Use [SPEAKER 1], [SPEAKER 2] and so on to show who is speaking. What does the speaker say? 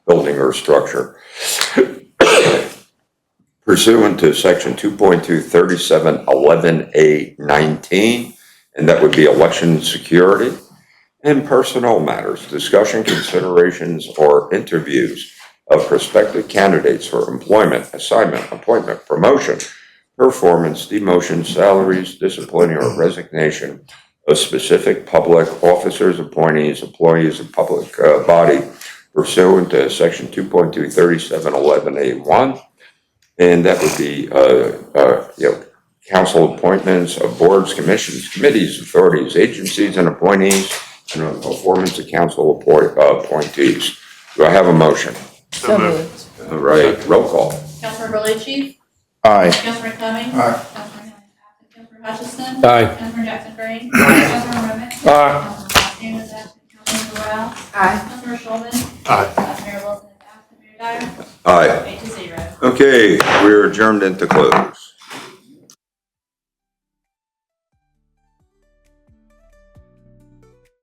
[SPEAKER 1] building or structure. Pursuant to section two point two thirty-seven eleven A nineteen, and that would be election security. And personnel matters, discussion considerations or interviews of prospective candidates for employment, assignment, appointment, promotion, performance, demotion, salaries, discipline, or resignation of specific public officers, appointees, employees of public uh, body pursuant to section 2.23711A1. And that would be, uh, uh, you know, council appointments of boards, commissions, committees, authorities, agencies, and appointees, and on performance of council appoint- uh, appointees. Do I have a motion?
[SPEAKER 2] So moved.
[SPEAKER 1] All right, roll call.
[SPEAKER 3] Councilor Berluci?
[SPEAKER 4] Aye.
[SPEAKER 3] Councilor Fleming?
[SPEAKER 4] Aye.
[SPEAKER 3] Councilor absent. Councilor Hutchison?
[SPEAKER 5] Aye.
[SPEAKER 3] Councilor Jackson Green? Councilor Remick?
[SPEAKER 5] Aye.
[SPEAKER 3] Councilor Costello is absent. Councilor Doral?
[SPEAKER 2] Aye.
[SPEAKER 3] Councilor Shulman?
[SPEAKER 4] Aye.
[SPEAKER 3] Vice Mayor Wilson is absent. Mayor Dyer?
[SPEAKER 1] Aye.
[SPEAKER 3] Eight to zero.
[SPEAKER 1] Okay, we're adjourned into close.